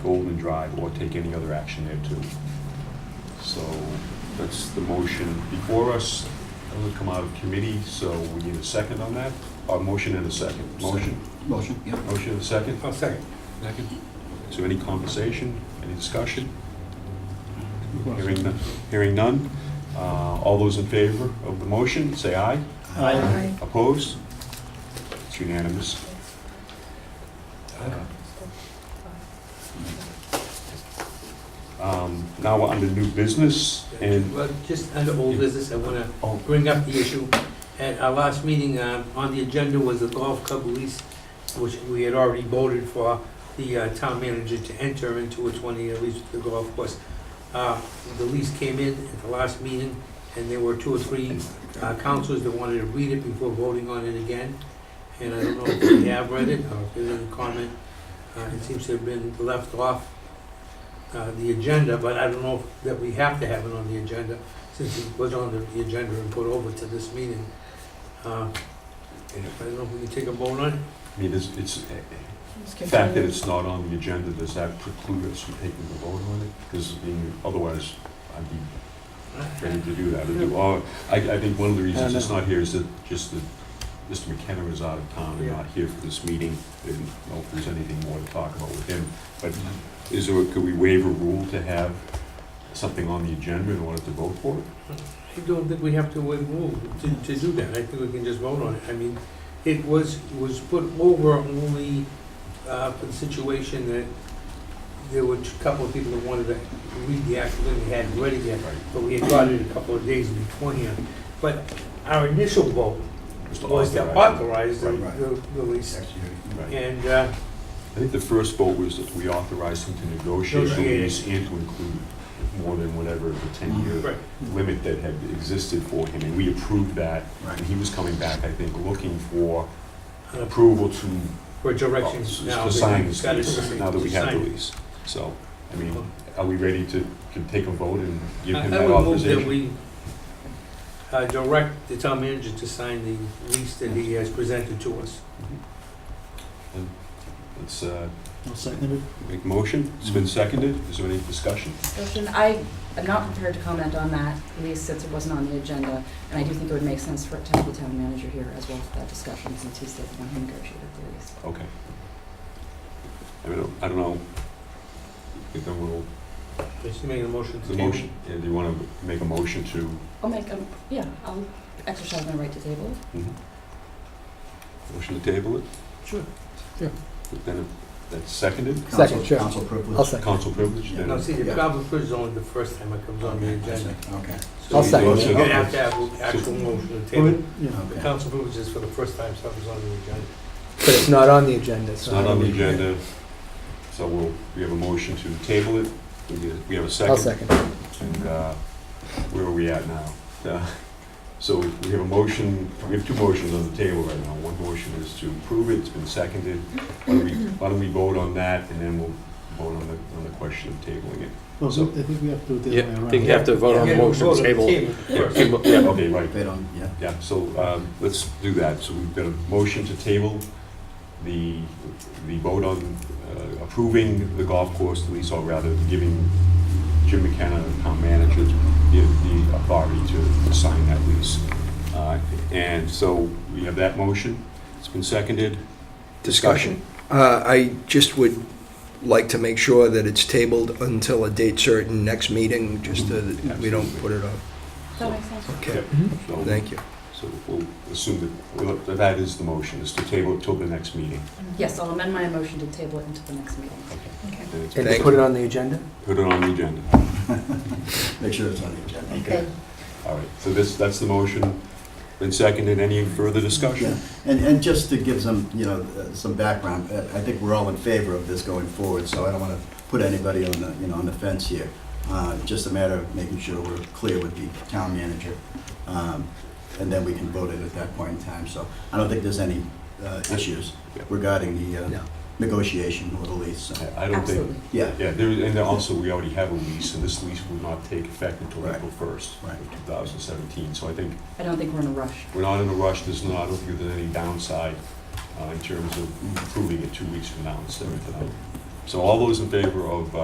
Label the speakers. Speaker 1: Golden Drive or take any other action there too. So that's the motion before us. That would come out of committee, so we need a second on that. A motion and a second. Motion,
Speaker 2: Motion, yep.
Speaker 1: motion and a second.
Speaker 3: I'll second.
Speaker 1: Second. Is there any conversation, any discussion? Hearing none, hearing none. Uh, All those in favor of the motion, say aye.
Speaker 4: Aye.
Speaker 1: Opposed? It's unanimous. Um, Now we're under new business, and,
Speaker 3: Well, just under old business, I want to
Speaker 1: oh,
Speaker 3: bring up the issue. At our last meeting, uh, on the agenda was the golf club lease, which we had already voted for the uh, town manager to enter into a 20-year lease with the golf course. Uh, The lease came in at the last meeting, and there were two or three uh, councils that wanted to read it before voting on it again. And I don't know if they have read it, or if there's any comment. Uh, It seems to have been left off uh, the agenda, but I don't know if- that we have to have it on the agenda since it was on the- the agenda and put over to this meeting. Uh, And if I don't know if we can take a vote on it?
Speaker 1: I mean, it's, it's, the fact that it's not on the agenda, does that preclude us from taking the vote on it? Because, I mean, otherwise, I'd be ready to do that. Or do- or- I, I think one of the reasons it's not here is that just that Mr. McKenna is out of town and not here for this meeting. I Didn't know if there's anything more to talk about with him. But is there, could we waive a rule to have something on the agenda in order to vote for it?
Speaker 3: I don't think we have to wait move to, to do that, I think we can just vote on it, I mean, it was, was put over only, uh, for the situation that there were a couple of people that wanted to read the act, and they hadn't read it yet,
Speaker 1: Right.
Speaker 3: but we had got it a couple of days beforehand. But our initial vote
Speaker 1: Just to
Speaker 3: was to
Speaker 1: authorize it.
Speaker 3: authorize the,
Speaker 1: Right.
Speaker 3: the the lease,
Speaker 1: Right.
Speaker 3: and, uh,
Speaker 1: I think the first vote was that we authorized him to negotiate the
Speaker 3: Negotiate.
Speaker 1: lease and to include more than whatever the ten-year
Speaker 3: right,
Speaker 1: limit that had existed for him. And we approved that, and he was coming back, I think, looking for
Speaker 3: an appro-
Speaker 1: approval to uh,
Speaker 3: for directions now.
Speaker 1: to sign
Speaker 3: we've
Speaker 1: this
Speaker 3: got it
Speaker 1: lease,
Speaker 3: to-
Speaker 1: now that we have the
Speaker 3: sign it.
Speaker 1: lease. So, I mean, are we ready to, can take a vote and give him
Speaker 3: I-
Speaker 1: that
Speaker 3: I would
Speaker 1: authorization?
Speaker 3: move that we uh, direct the town manager to sign the lease that he has presented to us.
Speaker 1: Let's uh,
Speaker 2: I'll second it.
Speaker 1: make motion, it's been seconded, is there any discussion?
Speaker 4: Discussion, I am not prepared to comment on that, at least since it wasn't on the agenda, and I do think it would make sense for it to have the town manager here as well for that discussion, since he's the one who negotiated the lease.
Speaker 1: Okay. I don't, I don't know, if there will,
Speaker 3: Is he making a motion to
Speaker 1: the
Speaker 3: table?
Speaker 1: motion, yeah, do you want to make a motion to?
Speaker 4: I'll make, a- yeah, I'll exercise my right to table.
Speaker 1: mhm. Motion to table it,
Speaker 3: Sure.
Speaker 1: but then if that's seconded,
Speaker 2: Second, sure.
Speaker 5: Council privilege.
Speaker 2: I'll second.
Speaker 1: council privilege, then.
Speaker 3: No, see, the
Speaker 5: Yeah.
Speaker 3: problem is only the first time it comes on the agenda.
Speaker 5: Okay.
Speaker 3: So
Speaker 2: I'll
Speaker 3: we-
Speaker 2: second
Speaker 5: it.
Speaker 3: You're gonna have to have an actual motion to table.
Speaker 2: Yeah.
Speaker 3: The council approves this for the first time something's on the agenda.
Speaker 2: But it's not on the agenda,
Speaker 1: It's
Speaker 2: so.
Speaker 1: not on the agenda, so we'll, we have a motion to table it, we get- we have a 2nd
Speaker 2: I'll second.
Speaker 1: And uh, where are we at now? Uh, So we have a motion, we have two motions on the table right now. One motion is to approve it, it's been seconded. Why don't we- why don't we vote on that, and then we'll vote on the, on the question of tabling it?
Speaker 2: Well,
Speaker 1: So-
Speaker 2: I think we have to do
Speaker 6: Yeah, I think you have to vote on
Speaker 3: Yeah,
Speaker 6: the motion
Speaker 3: vote on
Speaker 6: table.
Speaker 3: first.
Speaker 6: Yeah.
Speaker 1: Okay, right,
Speaker 5: Bid on, yeah.
Speaker 1: yeah, so um, let's do that. So we've got a motion to table the, the vote on uh, approving the golf course lease, or rather giving Jim McKenna, the town manager, the the authority to sign that lease. Uh, And so we have that motion. It's been seconded.
Speaker 7: Discussion. Uh, I just would like to make sure that it's tabled until a date certain next meeting, just so that we don't put it off.
Speaker 4: Does that make sense?
Speaker 7: Okay,
Speaker 1: So-
Speaker 7: thank you.
Speaker 1: So we'll assume that, well, that that is the motion, is to table it till the next meeting.
Speaker 4: Yes, I'll amend my motion to table it until the next meeting.
Speaker 1: And it's
Speaker 2: And
Speaker 1: been-
Speaker 2: to
Speaker 7: Thank
Speaker 2: put it
Speaker 7: you.
Speaker 2: on the agenda?
Speaker 1: Put it on the agenda.
Speaker 5: Make sure it's on the agenda.
Speaker 4: Okay.
Speaker 1: All right, so this, that's the motion. Been seconded. Any further discussion?
Speaker 5: Yeah. And, and just to give some, you know, uh, some background, uh, I think we're all in favor of this going forward, so I don't want to put anybody on the, you know, on the fence here. Uh, Just a matter of making sure we're clear with the town manager, um, and then we can vote it at that point in time. So I don't think there's any uh, issues
Speaker 1: Yeah.
Speaker 5: regarding the uh,
Speaker 7: No.
Speaker 5: negotiation or the lease, so,
Speaker 1: I- I don't think,
Speaker 4: Absolutely.
Speaker 5: yeah.
Speaker 1: yeah, there, and then also, we already have a lease, and this lease will not take effect until
Speaker 5: Right.
Speaker 1: April first
Speaker 5: Right.
Speaker 1: of two thousand seventeen. So I think
Speaker 4: I don't think we're in a rush.
Speaker 1: we're not in a rush, there's not, I don't think there's any downside uh, in terms of approving it two weeks from now instead of tonight. So all those in favor of uh,